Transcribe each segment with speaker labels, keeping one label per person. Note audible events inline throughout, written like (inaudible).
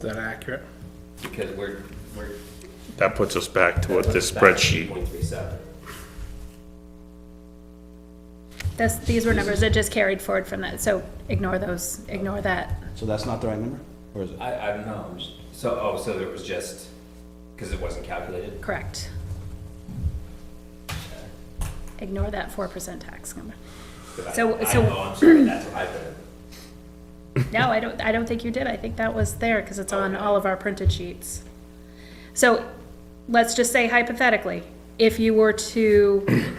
Speaker 1: that accurate?
Speaker 2: because we're, we're.
Speaker 3: That puts us back to what this
Speaker 2: back
Speaker 3: spreadsheet,
Speaker 2: 0.37.
Speaker 4: This, these were numbers that just carried forward from that, so ignore those, ignore that.
Speaker 5: So that's not the right number? Or is it?
Speaker 2: I, I don't know, I'm just- so, oh, so it was just, because it wasn't calculated?
Speaker 4: Correct. Ignore that four percent tax number.
Speaker 2: 'Cause I-
Speaker 4: So-
Speaker 2: I
Speaker 4: so-
Speaker 2: know, I'm sorry, that's what I put in.
Speaker 4: No, I don't, I don't think you did. I think that was there because it's on all of our printed sheets. So let's just say hypothetically, if you were to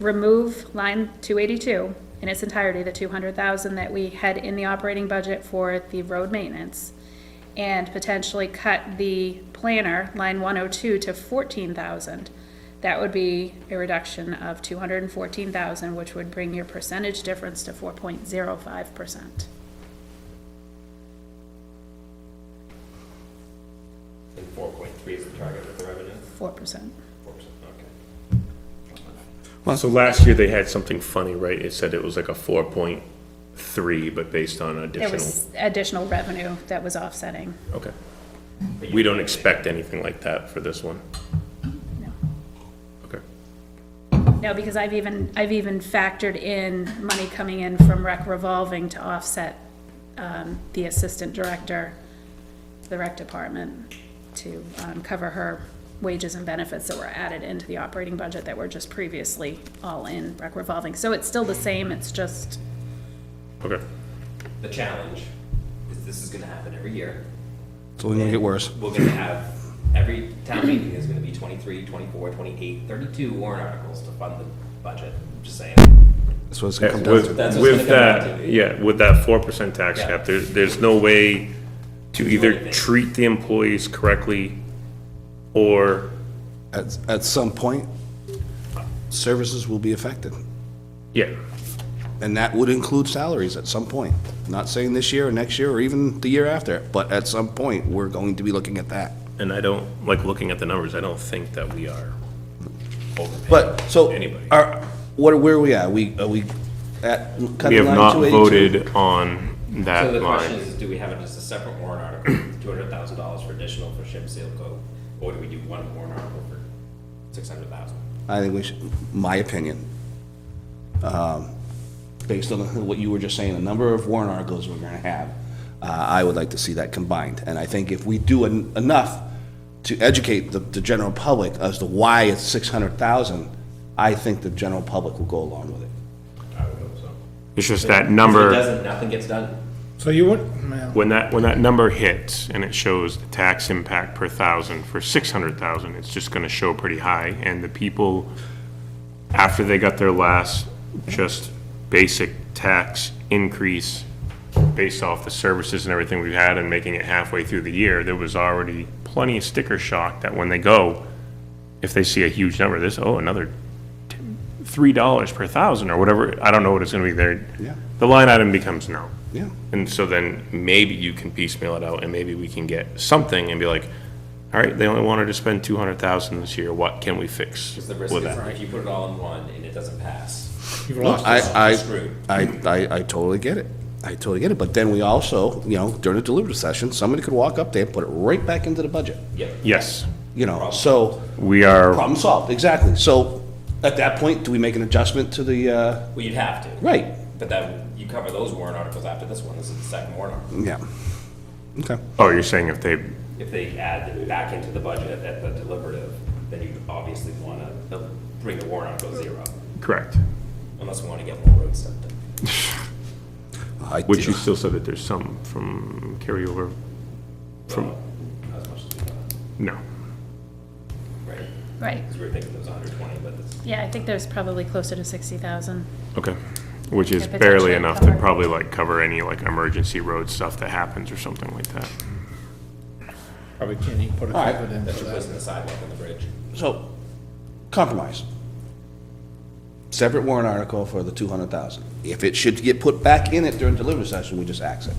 Speaker 4: remove line two eighty-two in its entirety, the two hundred thousand that we had in the operating budget for the road maintenance, and potentially cut the planner, line one oh two, to fourteen thousand, that would be a reduction of two hundred and fourteen thousand, which would bring your percentage difference to four point zero five percent.
Speaker 2: And four point three is the target with the revenue,
Speaker 4: Four percent.
Speaker 2: four percent, okay.
Speaker 3: so last year they had something funny, right? It said it was like a four point three, but based on
Speaker 4: There
Speaker 3: additional,
Speaker 4: was additional revenue that was offsetting.
Speaker 3: okay.
Speaker 2: But you-
Speaker 3: We don't expect anything like that for this one,
Speaker 4: No.
Speaker 3: okay?
Speaker 4: No, because I've even, I've even factored in money coming in from rec revolving to offset um, the assistant director, the rec department, to um, cover her wages and benefits that were added into the operating budget that were just previously all in rec revolving. So it's still the same, it's just,
Speaker 3: Okay,
Speaker 2: The challenge is this is gonna happen every year.
Speaker 5: It's only gonna get worse.
Speaker 2: We're gonna have, every town meeting is gonna be 23, 24, 28, 32 warrant articles to fund the budget, I'm just saying.
Speaker 5: That's what it's gonna come down
Speaker 3: with,
Speaker 5: to.
Speaker 2: That's what's gonna
Speaker 3: with
Speaker 2: come down
Speaker 3: that,
Speaker 2: to.
Speaker 3: yeah, with that four percent tax
Speaker 2: Yeah.
Speaker 3: cap, there, there's no way to either
Speaker 2: anything.
Speaker 3: treat the employees correctly or,
Speaker 5: At, at some point, services will be affected.
Speaker 3: yeah,
Speaker 5: And that would include salaries at some point. Not saying this year or next year or even the year after, but at some point, we're going to be looking at that.
Speaker 3: and I don't, like, looking at the numbers, I don't think that we are overpaying.
Speaker 5: But, so,
Speaker 3: Anybody.
Speaker 5: are, what, where are we at? We, are we at? cutting
Speaker 3: We have
Speaker 5: line
Speaker 3: not
Speaker 5: 282?
Speaker 3: voted on
Speaker 2: So the question
Speaker 3: that line.
Speaker 2: is, do we have it as a separate warrant article, two hundred thousand dollars for additional for ship seal coat? Or do we do one warrant article for six hundred thousand?
Speaker 5: I think we should, my opinion, um, based on (laughs) what you were just saying, the number of warrant articles we're gonna have, uh, I would like to see that combined. And I think if we do en- enough to educate the, the general public as to why it's six hundred thousand, I think the general public will go along with it.
Speaker 2: I would hope so.
Speaker 3: It's just that
Speaker 2: If it
Speaker 3: number,
Speaker 2: doesn't, nothing gets done.
Speaker 1: So you would, well,
Speaker 3: when that, when that number hits and it shows the tax impact per thousand for six hundred thousand, it's just gonna show pretty high. And the people, after they got their last just basic tax increase based off the services and everything we've had and making it halfway through the year, there was already plenty of sticker shock that when they go, if they see a huge number, this, oh, another t- three dollars per thousand or whatever, I don't know what it's gonna be there.
Speaker 5: Yeah.
Speaker 3: The line item becomes no.
Speaker 5: Yeah.
Speaker 3: And so then maybe you can piecemeal it out and maybe we can get something and be like, all right, they only wanted to spend two hundred thousand this year, what can we fix
Speaker 2: Because the risk
Speaker 3: with
Speaker 2: is
Speaker 3: that?
Speaker 2: if you put it all in one and it doesn't pass.
Speaker 1: you've lost
Speaker 5: I, I,
Speaker 2: Screwed.
Speaker 5: I, I, I totally get it. I totally get it, but then we also, you know, during the deliberative session, somebody could walk up there and put it right back into the budget,
Speaker 2: Yep.
Speaker 3: Yes,
Speaker 5: you know, so.
Speaker 3: we are,
Speaker 5: Problem solved, exactly. So at that point, do we make an adjustment to the, uh,
Speaker 2: Well, you'd have to.
Speaker 5: right,
Speaker 2: But then you cover those warrant articles after this one. This is the second warrant article.
Speaker 5: yeah. Okay,
Speaker 3: oh, you're saying if they,
Speaker 2: If they add it back into the budget at the deliberative, then you obviously want to bring the warrant article to zero,
Speaker 3: correct,
Speaker 2: unless we want to get more road stuff done.
Speaker 5: I do.
Speaker 3: which you still said that there's some from carryover, from,
Speaker 2: Not as much as we want,
Speaker 3: no.
Speaker 2: right?
Speaker 4: right.
Speaker 2: Because we were thinking it was hundred twenty, but it's.
Speaker 4: Yeah, I think there's probably closer to sixty thousand.
Speaker 3: Okay, which is
Speaker 4: Could
Speaker 3: barely
Speaker 4: potentially
Speaker 3: enough to
Speaker 4: cover.
Speaker 3: probably like cover any like emergency road stuff that happens or something like that.
Speaker 1: probably can't even put a
Speaker 5: All right.
Speaker 1: cover in
Speaker 2: That's
Speaker 1: for that.
Speaker 2: replacing the sidewalk and the bridge.
Speaker 5: So, compromise. Separate warrant article for the two hundred thousand. If it should get put back in it during deliberative session, we just ax it.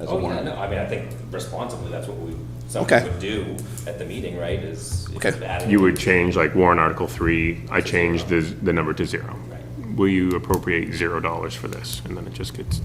Speaker 5: as a
Speaker 2: Oh, yeah,
Speaker 5: warrant.
Speaker 2: no, I mean, I think responsibly, that's what we,
Speaker 5: Okay.
Speaker 2: someone would do at the meeting, right, is. if
Speaker 5: Okay.
Speaker 2: it's added-
Speaker 3: You would change like warrant article three, I changed the, the number to zero.
Speaker 2: Right.
Speaker 3: Will you appropriate zero dollars for this? And then it just gets